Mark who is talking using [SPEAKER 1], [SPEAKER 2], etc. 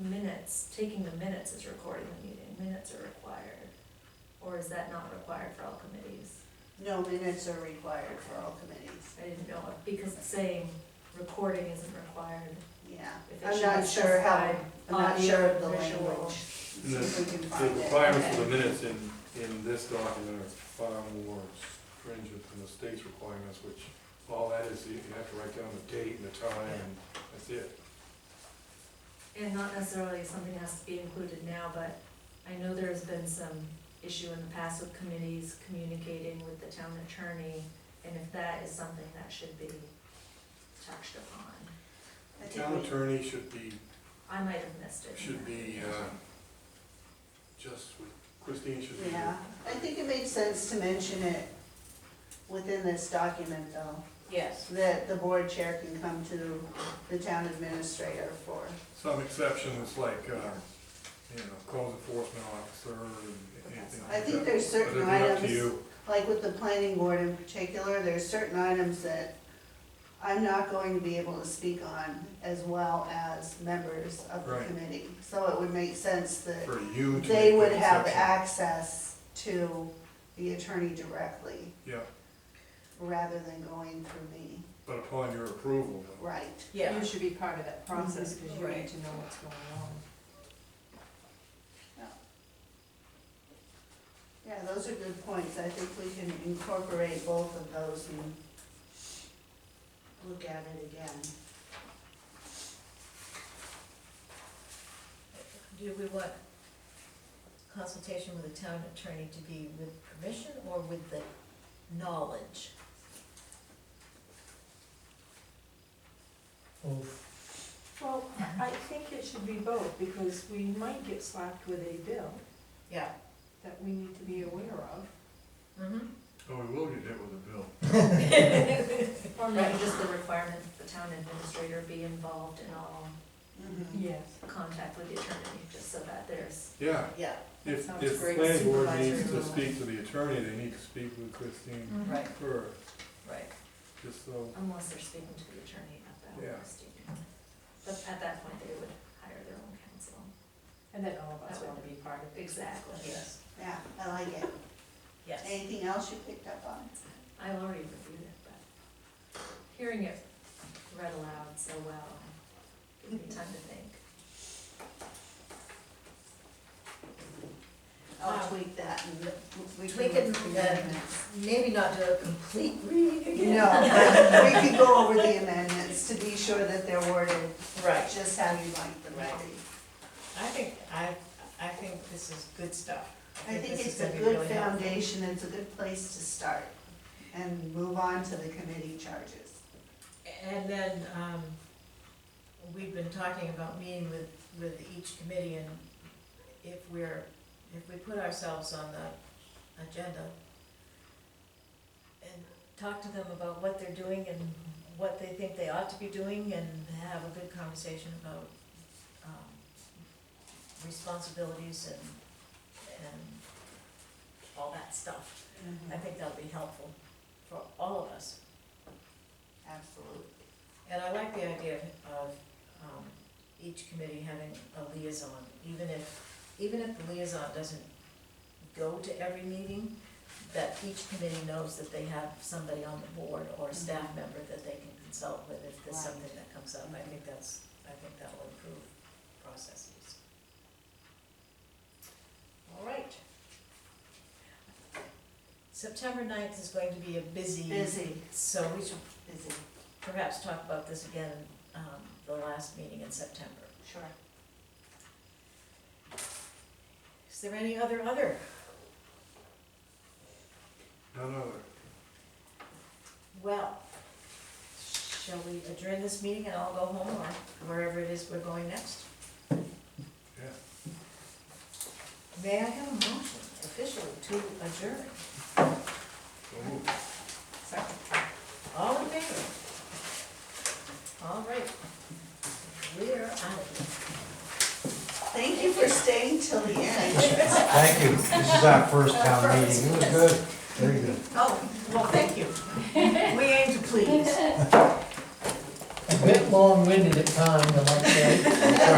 [SPEAKER 1] minutes, taking the minutes is recording the meeting, minutes are required. Or is that not required for all committees?
[SPEAKER 2] No minutes are required for all committees,
[SPEAKER 1] I didn't know, it because it's saying recording isn't required.
[SPEAKER 2] yeah.
[SPEAKER 1] If it
[SPEAKER 2] I'm
[SPEAKER 1] should
[SPEAKER 2] not
[SPEAKER 1] be
[SPEAKER 2] sure how,
[SPEAKER 1] specified
[SPEAKER 2] I'm not
[SPEAKER 1] audio
[SPEAKER 2] sure of the
[SPEAKER 1] visual.
[SPEAKER 2] language.
[SPEAKER 3] And
[SPEAKER 2] See if we can
[SPEAKER 3] The
[SPEAKER 2] find it.
[SPEAKER 3] requirements for
[SPEAKER 1] okay.
[SPEAKER 3] the minutes in, in this document are far more stringent than the state's requirements, which all that is, you you have to write down the date and the time, and that's it.
[SPEAKER 1] And not necessarily something has to be included now, but I know there's been some issue in the past with committees communicating with the town attorney, and if that is something that should be touched upon.
[SPEAKER 2] I think
[SPEAKER 3] Town
[SPEAKER 2] we-
[SPEAKER 3] attorney should be,
[SPEAKER 1] I might have missed it.
[SPEAKER 3] should be, uh, just, with- Christine should be.
[SPEAKER 2] Yeah, I think it makes sense to mention it within this document though,
[SPEAKER 4] Yes.
[SPEAKER 2] that the board chair can come to the town administrator for.
[SPEAKER 3] Some exceptions like, uh, you know, code enforcement officer and anything like that.
[SPEAKER 2] I think there's certain
[SPEAKER 3] But it'd be up to
[SPEAKER 2] items-
[SPEAKER 3] you.
[SPEAKER 2] Like with the planning board in particular, there's certain items that I'm not going to be able to speak on as well as members of the
[SPEAKER 3] Right.
[SPEAKER 2] committee. So it would make sense that
[SPEAKER 3] for you to.
[SPEAKER 2] they
[SPEAKER 3] make
[SPEAKER 2] would
[SPEAKER 3] that
[SPEAKER 2] have
[SPEAKER 3] exception.
[SPEAKER 2] access to the attorney directly
[SPEAKER 3] Yeah,
[SPEAKER 2] rather than going through me.
[SPEAKER 3] but upon your approval, though.
[SPEAKER 2] Right.
[SPEAKER 4] You should be part of that process,
[SPEAKER 1] Mhm.
[SPEAKER 4] because you
[SPEAKER 2] Right.
[SPEAKER 4] need to know what's going on.
[SPEAKER 2] Yeah, those are good points. I think we can incorporate both of those and look at it again.
[SPEAKER 5] Do we want consultation with the town attorney to be with permission or with the knowledge?
[SPEAKER 4] Well, I think it should be both, because we might get slapped with a bill
[SPEAKER 5] Yeah.
[SPEAKER 4] that we need to be aware of.
[SPEAKER 5] Mm-hmm.
[SPEAKER 3] Oh, we will get hit with a bill.
[SPEAKER 1] Or maybe just the requirement that the town administrator be involved in all
[SPEAKER 4] Yes.
[SPEAKER 1] contact with the attorney, just so that there's,
[SPEAKER 3] Yeah,
[SPEAKER 5] Yeah,
[SPEAKER 3] if,
[SPEAKER 4] sounds
[SPEAKER 3] if the
[SPEAKER 4] great.
[SPEAKER 3] planning board
[SPEAKER 4] Supervisor
[SPEAKER 3] needs to
[SPEAKER 4] and all that. Mm.
[SPEAKER 3] speak to the attorney, they need to speak with Christine
[SPEAKER 5] right,
[SPEAKER 3] first,
[SPEAKER 5] right.
[SPEAKER 3] just so,
[SPEAKER 1] unless they're speaking to the attorney at
[SPEAKER 3] Yeah.
[SPEAKER 1] that Christine. But at that point, they would hire their own counsel.
[SPEAKER 4] And then all of us
[SPEAKER 1] That
[SPEAKER 4] want
[SPEAKER 1] would
[SPEAKER 4] to be part of it.
[SPEAKER 1] Exactly.
[SPEAKER 5] Yes,
[SPEAKER 2] Yeah, I like it.
[SPEAKER 5] yes.
[SPEAKER 2] Anything else you picked up on?
[SPEAKER 1] I've already reviewed it, but hearing it read aloud so well, gave me time to think.
[SPEAKER 2] I'll
[SPEAKER 5] Um,
[SPEAKER 2] tweak that and we can.
[SPEAKER 5] tweak it
[SPEAKER 2] look through the
[SPEAKER 5] and-
[SPEAKER 2] minutes.
[SPEAKER 5] Maybe not do a complete read again.
[SPEAKER 2] No, but we could go over the amendments to be sure that they're worded
[SPEAKER 4] Right.
[SPEAKER 2] just how you like them to
[SPEAKER 4] Right.
[SPEAKER 2] be.
[SPEAKER 4] I think, I, I think this is good stuff.
[SPEAKER 2] I think
[SPEAKER 4] this is
[SPEAKER 2] it's a
[SPEAKER 4] gonna be
[SPEAKER 2] good
[SPEAKER 4] really helpful.
[SPEAKER 2] foundation, it's a good place to start and move on to the committee charges.
[SPEAKER 5] And then, um, we've been talking about meeting with, with each committee and if we're, if we put ourselves on the agenda and talk to them about what they're doing and what they think they ought to be doing and have a good conversation about, um, responsibilities and, and all that stuff.
[SPEAKER 2] Mm-hmm.
[SPEAKER 5] I think that'll be helpful for all of us.
[SPEAKER 2] Absolutely.
[SPEAKER 5] And I like the idea of, of, um, each committee having a liaison, even if, even if the liaison doesn't go to every meeting, that each committee knows that they have somebody on the board or a staff member that they can consult with if
[SPEAKER 2] Right.
[SPEAKER 5] there's something that comes up. I think that's, I think that will improve processes. All right. September 9th is going to be a busy,
[SPEAKER 2] Busy,
[SPEAKER 5] so we should
[SPEAKER 2] busy,
[SPEAKER 5] perhaps talk about this again, um, the last meeting in September.
[SPEAKER 2] sure.
[SPEAKER 5] Is there any other other?
[SPEAKER 3] none other.
[SPEAKER 5] Well, shall we adjourn this meeting and I'll go home or wherever it is we're going next?
[SPEAKER 3] Yeah.
[SPEAKER 5] May I have a motion officially to adjourn?
[SPEAKER 3] So moved.
[SPEAKER 5] All in favor? All right. We're out.
[SPEAKER 2] Thank you for staying till the end.
[SPEAKER 6] Thank you. This is our first town meeting. It was good, very good.
[SPEAKER 5] Oh, well, thank you. We aim to please.
[SPEAKER 6] A bit long-winded at times, I like that.